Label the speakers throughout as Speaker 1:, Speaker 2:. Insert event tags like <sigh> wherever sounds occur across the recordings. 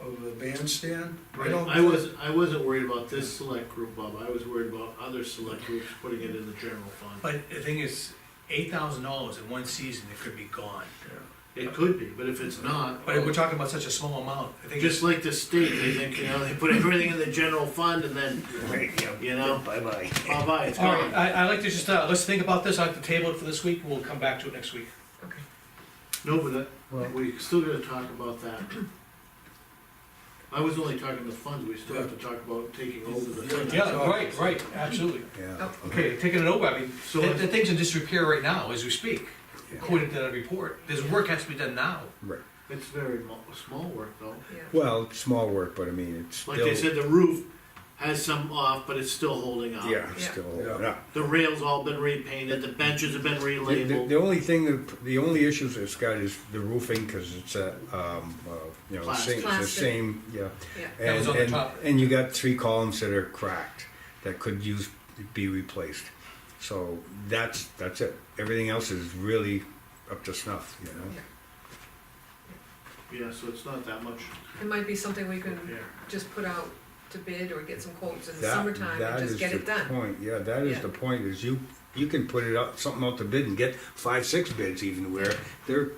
Speaker 1: of the bandstand. I
Speaker 2: Right,
Speaker 1: don't
Speaker 2: I wasn't, I wasn't worried about this select group, Bob, I was worried about other select groups putting it in the general fund.
Speaker 3: But the thing is, eight thousand dollars in one season, it could be gone.
Speaker 2: It could be, but if it's not,
Speaker 3: But we're talking about such a small amount, I think it's,
Speaker 2: just like the state, they think, you know, they put everything in the general fund and then, you know,
Speaker 4: Bye-bye.
Speaker 2: bye-bye, it's
Speaker 3: all right,
Speaker 2: gone.
Speaker 3: I, I like to just, uh, let's think about this, I like to table it for this week, we'll come back to it next week.
Speaker 2: No, but that-
Speaker 4: Well-
Speaker 2: we still gotta talk about that. I was only talking the funds, we still have to talk about taking over the
Speaker 1: Yeah.
Speaker 2: funds.
Speaker 3: Yeah, right, right, absolutely.
Speaker 4: Yeah.
Speaker 3: Okay, taking it over, I mean,
Speaker 2: So
Speaker 3: the,
Speaker 2: let's-
Speaker 3: the thing's in disrepair right now as we speak,
Speaker 4: Yeah.
Speaker 3: according to that report. There's work has to be done now.
Speaker 4: Right.
Speaker 2: It's very mo- small work though.
Speaker 5: Yeah.
Speaker 4: Well, small work, but I mean, it's still.
Speaker 2: Like they said, the roof has some off, but it's still holding up.
Speaker 4: Yeah, it's
Speaker 5: Yeah.
Speaker 4: still,
Speaker 1: Yeah.
Speaker 4: yeah.
Speaker 2: The rails all been repainted, the benches have been
Speaker 4: The, the- the
Speaker 2: relabeled,
Speaker 4: only thing, that- the only issues it's got is the roofing, cause it's a, um, uh, you know, the same, it's the
Speaker 5: Plastic.
Speaker 4: same, yeah.
Speaker 5: Yeah.
Speaker 3: That was
Speaker 4: And-
Speaker 3: on the
Speaker 4: and-
Speaker 3: top.
Speaker 4: And you got three columns that are cracked, that could use, be replaced. So that's, that's it. Everything else is really up to snuff, you know?
Speaker 2: yeah, so it's not that much
Speaker 5: It might be something we can
Speaker 2: repair.
Speaker 5: just put out to bid or get some quotes in the
Speaker 4: That-
Speaker 5: summertime
Speaker 4: that
Speaker 5: and
Speaker 4: is
Speaker 5: just get
Speaker 4: the
Speaker 5: it done.
Speaker 4: Point, yeah, that is
Speaker 5: Yeah.
Speaker 4: the point, is you, you can put it up, something out to bid and get five, six bids even where they're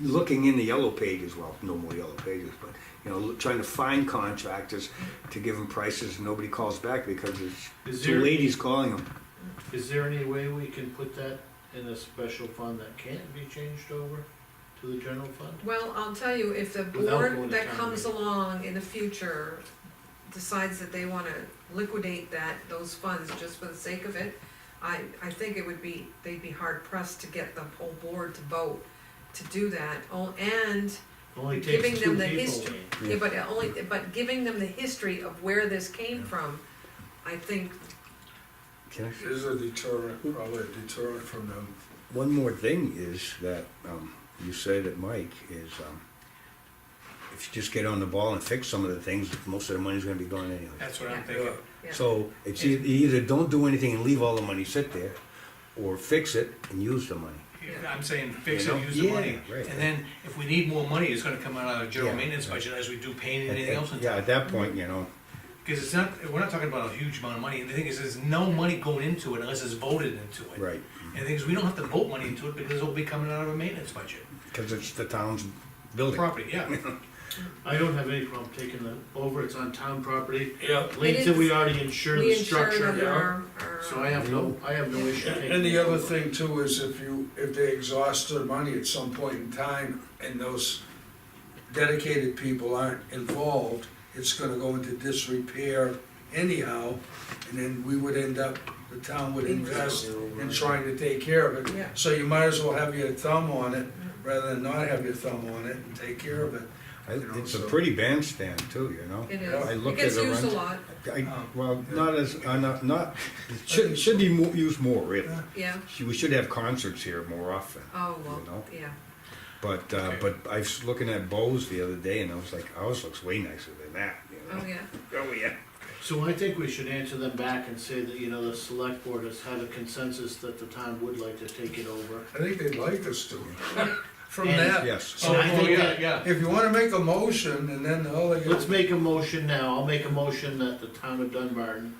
Speaker 4: looking in the yellow pages, well, no more yellow pages, but, you know, look- trying to find contractors to give them prices and nobody calls back because
Speaker 2: Is
Speaker 4: it's
Speaker 2: there-
Speaker 4: two ladies calling them.
Speaker 2: Is there any way we can put that in a special fund that can't be changed over to the general fund?
Speaker 5: Well, I'll tell you, if the
Speaker 2: Without going
Speaker 5: board
Speaker 2: to
Speaker 5: that
Speaker 2: town
Speaker 5: comes
Speaker 2: meeting.
Speaker 5: along in the future decides that they wanna liquidate that, those funds just for the sake of it, I, I think it would be, they'd be hard pressed to get the whole board to vote to do that. Oh, and
Speaker 2: Only
Speaker 5: Giving
Speaker 2: takes two
Speaker 5: them the
Speaker 2: people.
Speaker 5: history.
Speaker 2: Lean.
Speaker 5: Yeah, but it only, but giving them the history of where this came
Speaker 4: Yeah.
Speaker 5: from, I think,
Speaker 4: Can I
Speaker 1: Is a deterrent, probably a deterrent from them.
Speaker 4: One more thing is that um, you said that Mike is um, if you just get on the ball and fix some of the things, most of the money's going to be gone anyway.
Speaker 3: That's what I'm
Speaker 5: Yeah.
Speaker 3: thinking.
Speaker 5: yeah.
Speaker 4: So it's either, either don't do anything and leave all the money sit there, or fix it and use the money.
Speaker 5: Yeah.
Speaker 3: I'm saying fix
Speaker 4: You
Speaker 3: it,
Speaker 4: know?
Speaker 3: use the
Speaker 4: Yeah,
Speaker 3: money.
Speaker 4: right.
Speaker 3: And then if we need more money, it's gonna come out of the general
Speaker 4: Yeah,
Speaker 3: maintenance
Speaker 4: right.
Speaker 3: budget as we do painting
Speaker 4: At-
Speaker 3: and anything
Speaker 4: at-
Speaker 3: else. in
Speaker 4: Yeah,
Speaker 3: town.
Speaker 4: at that point, you know,
Speaker 3: Cause it's not, we're not talking about a huge amount of money. And the thing is, there's no money going into it unless it's voted into it.
Speaker 4: right,
Speaker 3: And the thing is, we don't have to vote money into it because it'll be coming out of a maintenance budget.
Speaker 4: because it's the town's building.
Speaker 3: Property, yeah.
Speaker 2: I don't have any problem taking that over, it's on town property.
Speaker 1: Yeah.
Speaker 2: Lean said we already insured
Speaker 5: We
Speaker 2: the
Speaker 5: ensure
Speaker 2: structure,
Speaker 1: yeah.
Speaker 5: that uh, our, our.
Speaker 2: so I have no, I have no issue taking it
Speaker 1: And the other
Speaker 2: over.
Speaker 1: thing too is if you, if they exhaust their money at some point in time and those dedicated people aren't involved, it's gonna go into disrepair anyhow, and then we would end up, the town would invest in trying to take care of it.
Speaker 5: Yeah.
Speaker 1: So you might as well have your thumb on it, rather than not have your thumb on it and take care of it.
Speaker 4: I- It's a pretty bandstand too, you know?
Speaker 5: It
Speaker 1: I
Speaker 5: is, it
Speaker 4: looked
Speaker 5: gets
Speaker 4: at it
Speaker 5: used a
Speaker 4: once.
Speaker 5: lot,
Speaker 4: I,
Speaker 3: Um,
Speaker 4: well, not as, uh, not, not, it should, should be mo- used more, really.
Speaker 5: yeah,
Speaker 4: We should have concerts here more often.
Speaker 5: oh,
Speaker 4: You
Speaker 5: well,
Speaker 4: know?
Speaker 5: yeah,
Speaker 4: But uh,
Speaker 3: Okay.
Speaker 4: but I was looking at Bose the other day, and I was like, ours looks way nicer than that. You
Speaker 5: oh,
Speaker 4: know?
Speaker 5: yeah,
Speaker 4: Oh yeah.
Speaker 2: So I think we should answer them back and say that, you know, the select board has had a consensus that the town would like to take it over.
Speaker 1: I think they'd like us to. From
Speaker 2: And-
Speaker 1: that,
Speaker 4: Yes.
Speaker 2: So I
Speaker 3: Oh,
Speaker 2: think
Speaker 3: yeah,
Speaker 2: that-
Speaker 3: Yeah.
Speaker 1: If you wanna make a motion and then all they
Speaker 2: Let's
Speaker 1: got,
Speaker 2: make a motion now, I'll make a motion that the town of Dunbarton,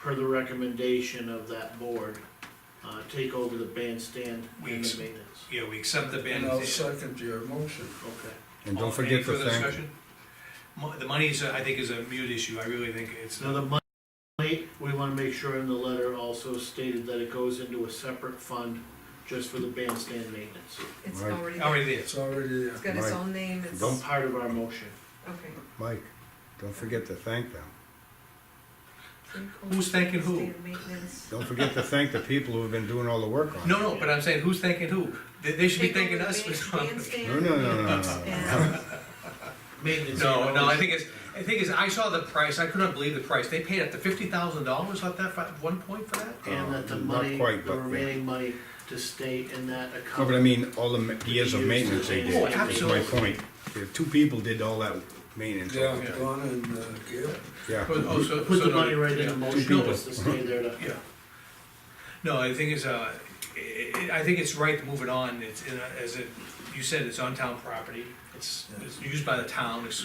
Speaker 2: per the recommendation of that board, uh, take over the bandstand and the
Speaker 3: Weeks.
Speaker 2: maintenance.
Speaker 3: Yeah, we accept the ban.
Speaker 1: and I'll second your motion.
Speaker 2: Okay.
Speaker 4: And
Speaker 3: All-
Speaker 4: don't forget
Speaker 3: Any
Speaker 4: to
Speaker 3: further
Speaker 4: thank.
Speaker 3: discussion? Mo- The money is, uh, I think, is a mute issue, I really think it's
Speaker 2: Now,
Speaker 3: not,
Speaker 2: the money, we wanna make sure in the letter also stated that it goes into a separate fund just for the bandstand maintenance.
Speaker 5: it's
Speaker 4: Right.
Speaker 5: already, there.
Speaker 3: already there.
Speaker 1: It's already uh, there.
Speaker 5: it's got its
Speaker 4: Right.
Speaker 5: own name, it's,
Speaker 4: Don't-
Speaker 5: okay,
Speaker 2: Part of our motion.
Speaker 4: Mike. Don't forget to thank them.
Speaker 3: Who's thanking who?
Speaker 5: Stand Maintenance,
Speaker 4: Don't forget to thank the people who have been doing all the work on
Speaker 3: No,
Speaker 4: it.
Speaker 3: no, but I'm saying, who's thanking who? They, they should be
Speaker 5: Take
Speaker 3: thanking
Speaker 5: over the
Speaker 3: us.
Speaker 5: ban-
Speaker 3: for something.
Speaker 5: bandstand.
Speaker 4: No, no, no, no, no, no.
Speaker 5: And
Speaker 3: <laughs>
Speaker 2: Maintenance.
Speaker 3: No, no, I think it's, the thing is, I saw the price, I could not believe the price, they paid up to fifty thousand dollars at that, fi- one point for that?
Speaker 2: And that the
Speaker 4: Um, Not
Speaker 2: money,
Speaker 4: quite,
Speaker 2: the
Speaker 4: but yeah.
Speaker 2: remaining money to stay in that account.
Speaker 4: No, but I mean, all the ma- years of maintenance they did.
Speaker 3: Oh,
Speaker 4: That's my
Speaker 3: absolutely.
Speaker 4: point. The two people did all that maintenance.
Speaker 1: Yeah,
Speaker 3: Yeah.
Speaker 1: Donna and uh, Gail.
Speaker 4: Yeah.
Speaker 3: Oh, oh, so-
Speaker 2: Put
Speaker 3: so
Speaker 2: the
Speaker 3: no,
Speaker 2: money right in the
Speaker 3: yeah.
Speaker 2: motion,
Speaker 3: No,
Speaker 2: just to stay there
Speaker 4: <laughs>
Speaker 2: to.
Speaker 3: Yeah. No, the thing is, uh, i- i I think it's right to move it on, it's, in a- as it, you said, it's on town property, it's, it's used by the town, it's